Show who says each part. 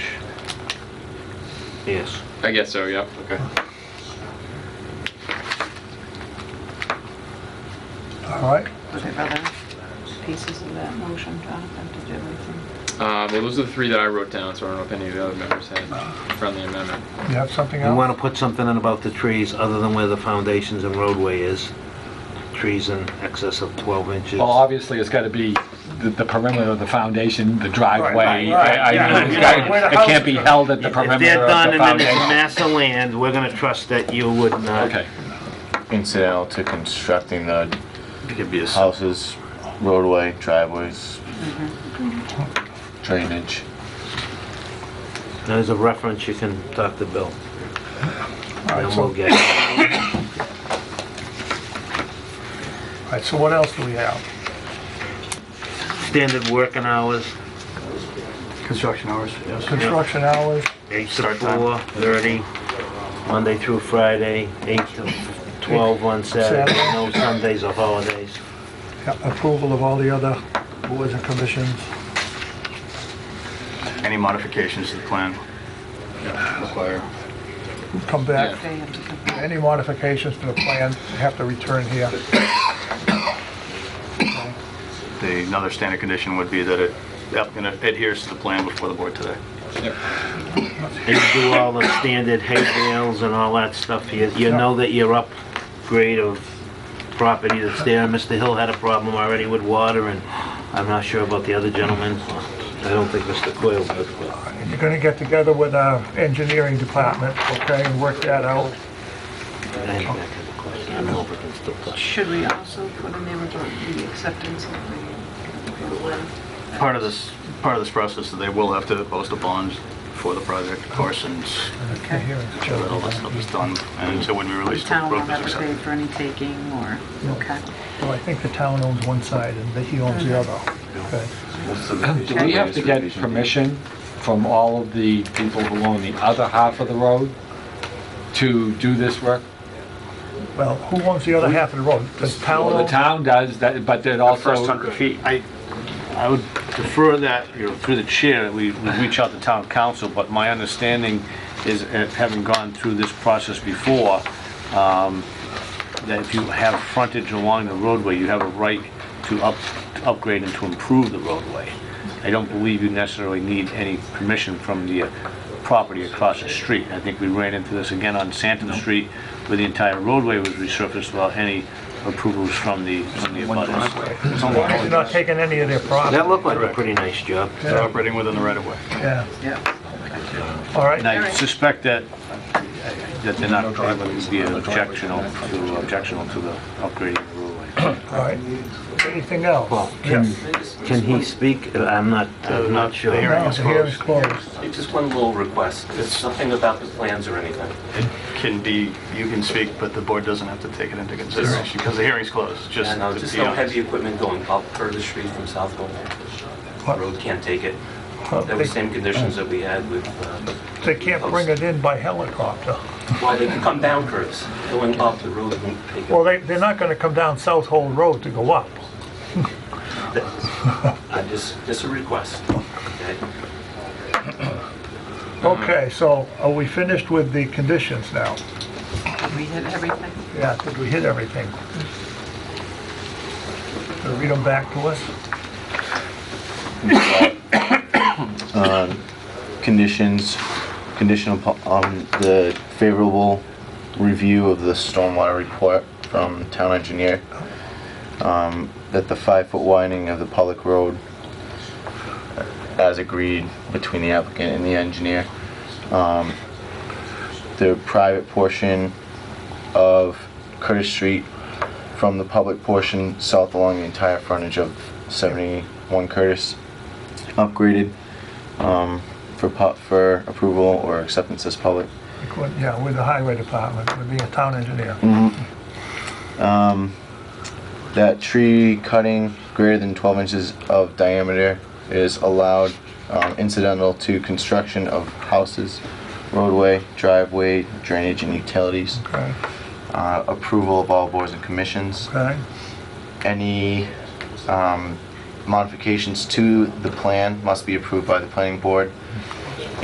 Speaker 1: Yes.
Speaker 2: I guess so, yep.
Speaker 1: Okay.
Speaker 3: All right,
Speaker 4: What are other pieces of that motion, Jonathan, did you have anything?
Speaker 2: Um, well, those are the three that I wrote down, so I don't know if any of the other members had a friendly amendment.
Speaker 3: you have something
Speaker 1: You want
Speaker 3: else?
Speaker 1: to put something in about the trees other than where the foundations and roadway is? Trees in excess of 12 inches?
Speaker 5: Well, obviously, it's got to be the- the perimeter of the foundation, the driveway.
Speaker 3: Right, right,
Speaker 5: I- I
Speaker 1: yeah,
Speaker 5: mean, it's
Speaker 1: yeah,
Speaker 5: gotta-
Speaker 3: where the
Speaker 5: It
Speaker 3: house
Speaker 5: can't be
Speaker 3: goes.
Speaker 5: held at the
Speaker 1: If
Speaker 5: perimeter
Speaker 1: they're
Speaker 5: of
Speaker 1: done
Speaker 5: the
Speaker 1: and then there's a
Speaker 5: foundation.
Speaker 1: mass of land, we're going to trust that you would not...
Speaker 5: Okay,
Speaker 6: incidental to constructing the
Speaker 1: It could be a... s-
Speaker 6: houses, roadway, driveways, drainage.
Speaker 5: Oh,
Speaker 1: There's a reference, you can talk to Bill.
Speaker 3: All right,
Speaker 1: And
Speaker 3: so-
Speaker 1: we'll get it.
Speaker 3: All right, so what else do we have?
Speaker 1: Standard working hours,
Speaker 7: Construction hours, yes.
Speaker 3: Construction hours,
Speaker 1: 8 to 4, 30, Monday through Friday, 8 to 12 on Saturday,
Speaker 3: Saturday.
Speaker 1: no Sundays or holidays.
Speaker 3: yeah, approval of all the other boards and commissions.
Speaker 7: Any modifications to the plan require?
Speaker 3: Come back,
Speaker 2: Yeah.
Speaker 4: They have to come back.
Speaker 3: any modifications to the plan, you have to return here.
Speaker 7: The, another standard condition would be that it applicant adheres to the plan before the board today.
Speaker 1: And you do all the standard hay bales and all that stuff. You, you know that you're upgrade of property that's there. Mr. Hill had a problem already with water, and I'm not sure about the other gentleman. I don't think Mr. Coyle did, but
Speaker 3: You're gonna get together with our engineering department, okay, and work that out.
Speaker 1: I think that kind of question, I don't know if we can still touch.
Speaker 4: Should we also put in there about the acceptance of the...
Speaker 7: Part of this, part of this process, that they will have to post a bond for the project, of course, and
Speaker 3: Okay, here it's
Speaker 7: show that all that stuff is done, and until when we
Speaker 4: The
Speaker 7: release the
Speaker 4: town will
Speaker 7: road is
Speaker 4: have to pay
Speaker 7: accepted.
Speaker 4: for any taking or, okay.
Speaker 3: Well, I think the town owns one side and he owns the other, okay?
Speaker 5: do we have to get permission from all of the people who own the other half of the road to do this work?
Speaker 3: Well, who owns the other half of the road? The town?
Speaker 5: Well, the
Speaker 3: owns-
Speaker 5: town does, that, but then also...
Speaker 7: feet.
Speaker 8: I, I would defer that, you know, through the chair, that we we reach out to town council, but my understanding is, uh, having gone through this process before, um, that if you have frontage along the roadway, you have a right to up, to upgrade and to improve the roadway. I don't believe you necessarily need any permission from the uh, property across the street. I think we ran into this again on Santon Street, where the entire roadway was resurfaced without any approvals from the, from the abutters.
Speaker 3: You're not taking any of their property.
Speaker 1: That looked like a pretty nice job.
Speaker 7: They're operating within the right of way.
Speaker 3: Yeah,
Speaker 4: Yeah.
Speaker 3: all
Speaker 8: And
Speaker 3: right,
Speaker 8: I suspect that, that they're not, that would be objectional to, objectional to the upgrading of the roadway.
Speaker 3: all right. Anything else?
Speaker 1: Well,
Speaker 3: Yes.
Speaker 1: can, can he speak? I'm not, I'm not sure.
Speaker 7: hearing
Speaker 3: No,
Speaker 7: is
Speaker 3: the hearing's closed.
Speaker 9: Just one little request, It's something about the plans or anything.
Speaker 7: It can be, you can speak, but the board doesn't have to take it into consideration, because the hearing's closed, just
Speaker 9: And uh,
Speaker 7: to
Speaker 9: just
Speaker 7: be
Speaker 9: no
Speaker 7: honest.
Speaker 9: heavy equipment going up further street from South Going. Road can't take it.
Speaker 3: Well,
Speaker 9: That was
Speaker 3: They
Speaker 9: same conditions that we had with, uh,
Speaker 3: they can't bring it in by helicopter.
Speaker 9: well, they could come down curves, going up, the road wouldn't take
Speaker 3: Well,
Speaker 9: it.
Speaker 3: they, they're not gonna come down South Hole Road to go up.
Speaker 9: I just, just a request. okay?
Speaker 3: Okay, so are we finished with the conditions now?
Speaker 4: We hit everything.
Speaker 3: Yeah, did we hit everything? Gonna Read them back to us?
Speaker 6: Um, Conditions, conditional po- on the favorable review of the stormwater report from town engineer. Um, That the five-foot widening of the public road, as agreed between the applicant and the engineer. Um, The private portion of Curtis Street from the public portion south along the entire frontage of 71 Curtis upgraded um, for pu- for approval or acceptance as public.
Speaker 3: Yeah, with the highway department, with the town engineer.
Speaker 6: Um, that tree cutting greater than 12 inches of diameter is allowed um, incidental to construction of houses, roadway, driveway, drainage, and utilities.
Speaker 3: Okay,
Speaker 6: Uh, approval of all boards and commissions.
Speaker 3: okay,
Speaker 6: Any um, modifications to the plan must be approved by the planning board